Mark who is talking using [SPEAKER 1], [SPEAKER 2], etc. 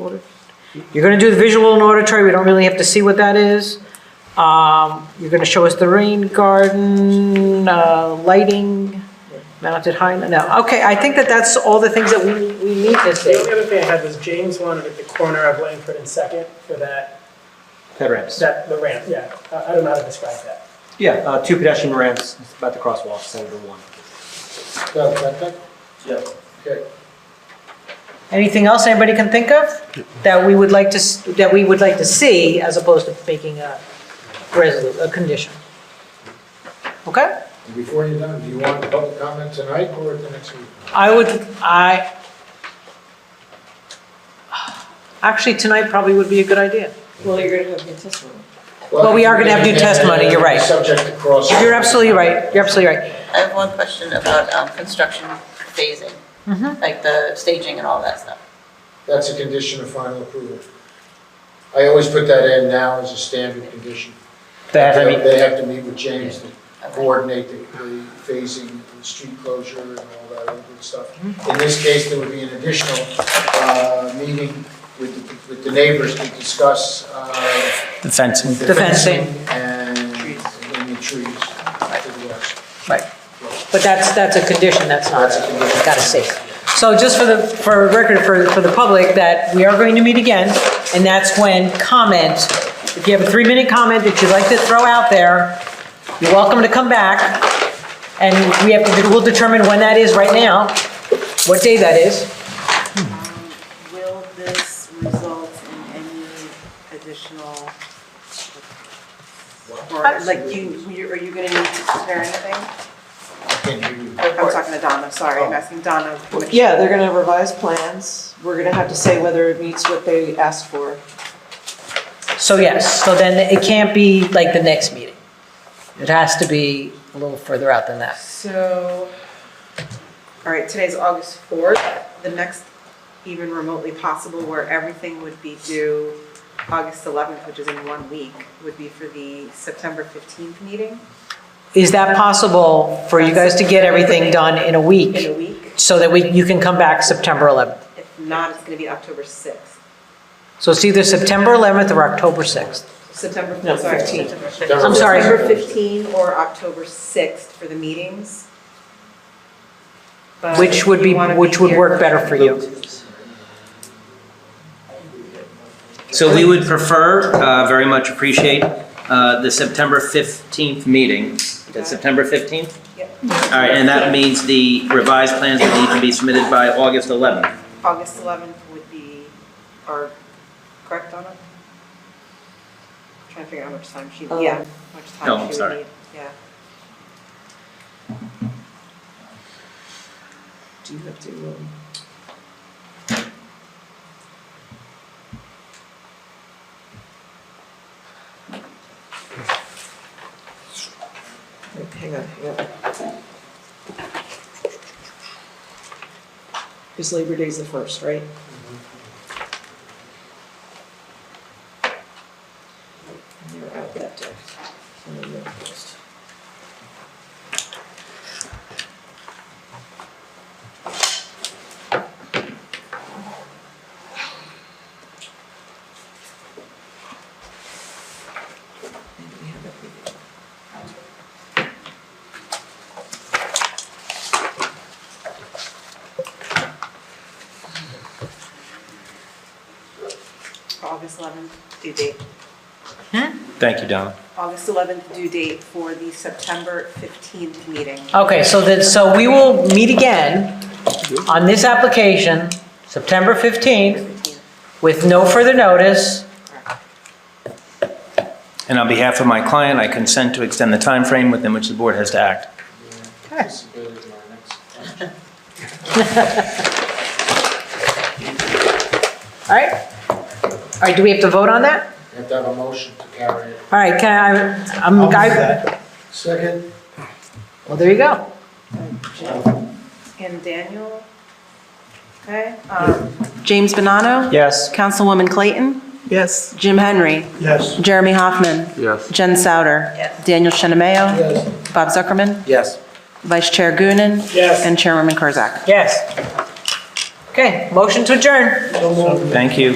[SPEAKER 1] Order. You're gonna do the visual and auditory, we don't really have to see what that is. Um, You're gonna show us the rain garden, uh, lighting, mounted high, no, okay, I think that that's all the things that we we need this
[SPEAKER 2] The
[SPEAKER 1] day.
[SPEAKER 2] only other thing I had was James wanted at the corner of Langford and Second for that,
[SPEAKER 3] Ped ramps.
[SPEAKER 2] that, the ramp, yeah. I I don't know how to describe that.
[SPEAKER 3] Yeah, uh, two pedestrian ramps about the crosswalk, center of one.
[SPEAKER 4] Well, second?
[SPEAKER 3] Yes.
[SPEAKER 4] Okay.
[SPEAKER 1] Anything else anybody can think of that we would like to, s- that we would like to see as opposed to making a resolu, a condition? Okay?
[SPEAKER 4] Before you're done, do you want public comment tonight or at the next meeting?
[SPEAKER 1] I would, I, actually, tonight probably would be a good idea.
[SPEAKER 5] Well, you're gonna have your testimony.
[SPEAKER 1] Well, we are gonna have to do testimony, you're right.
[SPEAKER 4] Subject to cross.
[SPEAKER 1] You're absolutely right, you're absolutely right.
[SPEAKER 6] I have one question about um, construction phasing, like the staging and all that stuff.
[SPEAKER 4] That's a condition of final approval. I always put that in now as a standard condition.
[SPEAKER 3] That, I mean,
[SPEAKER 4] They have to meet with James to
[SPEAKER 6] Okay.
[SPEAKER 4] coordinate the the phasing, and the street closure and all that other good stuff. In this case, there would be an additional uh, meeting with, the- with the neighbors to discuss uh,
[SPEAKER 7] The fencing.
[SPEAKER 4] the
[SPEAKER 1] The fencing.
[SPEAKER 4] And, and the trees to the west.
[SPEAKER 1] Right. But that's, that's a condition, that's not,
[SPEAKER 4] That's a condition.
[SPEAKER 1] gotta see. So just for the, for record, for, for the public, that we are going to meet again, and that's when comment, if you have a three-minute comment that you'd like to throw out there, you're welcome to come back, and we have to, we'll determine when that is right now, what day that is.
[SPEAKER 8] Will this result in any additional? Or like you, you- are you gonna need to prepare anything?
[SPEAKER 4] I can't hear you.
[SPEAKER 8] I'm talking to Donna, sorry, I'm asking Donna. which-
[SPEAKER 5] Oh. Yeah, they're gonna revise plans. We're gonna have to say whether it meets what they asked for.
[SPEAKER 1] So yes, so then it can't be like the next meeting. It has to be a little further out than that.
[SPEAKER 8] So, all right, today's August 4th. The next even remotely possible where everything would be due August 11th, which is in one week, would be for the September 15th meeting
[SPEAKER 1] Is that possible for you guys to get everything done in a
[SPEAKER 8] in a
[SPEAKER 1] week
[SPEAKER 8] week.
[SPEAKER 1] so that we, you can come back September 11th?
[SPEAKER 8] If not, it's gonna be October 6th.
[SPEAKER 1] So it's either September 11th or October 6th.
[SPEAKER 8] September,
[SPEAKER 5] No,
[SPEAKER 8] sorry,
[SPEAKER 5] 15th.
[SPEAKER 8] September 15th.
[SPEAKER 4] That
[SPEAKER 1] I'm
[SPEAKER 4] was-
[SPEAKER 1] sorry.
[SPEAKER 8] October 15 or October 6th for the meetings. But
[SPEAKER 1] Which would
[SPEAKER 8] if
[SPEAKER 1] be,
[SPEAKER 8] you wanna
[SPEAKER 1] which would
[SPEAKER 8] here-
[SPEAKER 1] work better for you.
[SPEAKER 3] So we would prefer, uh, very much appreciate, uh, the September 15th meeting. Is it September 15th?
[SPEAKER 8] Yep.
[SPEAKER 3] All right, and that means the revised plans will need to be submitted by August 11th.
[SPEAKER 8] August 11th would be, or, correct, Donna? Trying to figure out how much time she,
[SPEAKER 5] Um,
[SPEAKER 8] yeah, much
[SPEAKER 3] No, I'm
[SPEAKER 8] time she would
[SPEAKER 3] sorry.
[SPEAKER 8] need, yeah.
[SPEAKER 5] Do you have to, um, wait, hang on, hang on. Because Labor Day's the first, right? And you're out that day. And then you're first. And we have that meeting.
[SPEAKER 8] For August 11th due date.
[SPEAKER 7] Thank you, Donna.
[SPEAKER 8] August 11th due date for the September 15th meeting.
[SPEAKER 1] Okay, so then, so we will meet again on this application, September 15th,
[SPEAKER 8] 15th.
[SPEAKER 1] with no further notice.
[SPEAKER 7] And on behalf of my client, I consent to extend the time frame within which the board has to act.
[SPEAKER 4] This is better than our next one.
[SPEAKER 1] All right? All right, do we have to vote on that?
[SPEAKER 4] You Have to have a motion to carry it.
[SPEAKER 1] All right, can I, I'm, I,
[SPEAKER 4] Second?
[SPEAKER 1] well, there you go.
[SPEAKER 8] And Daniel? Okay. um, James Bonanno?
[SPEAKER 3] Yes.
[SPEAKER 8] Councilwoman Clayton? Yes. Jim Henry? Yes. Jeremy Hoffman? Yes. Jen Souter? Yes. Daniel Shinameo? Yes. Bob Zuckerman?
[SPEAKER 3] Yes.
[SPEAKER 8] Vice Chair Gunnin?
[SPEAKER 2] Yes.
[SPEAKER 8] And Chairwoman Kurzak?
[SPEAKER 1] Yes. Okay, motion to adjourn.
[SPEAKER 7] Thank you.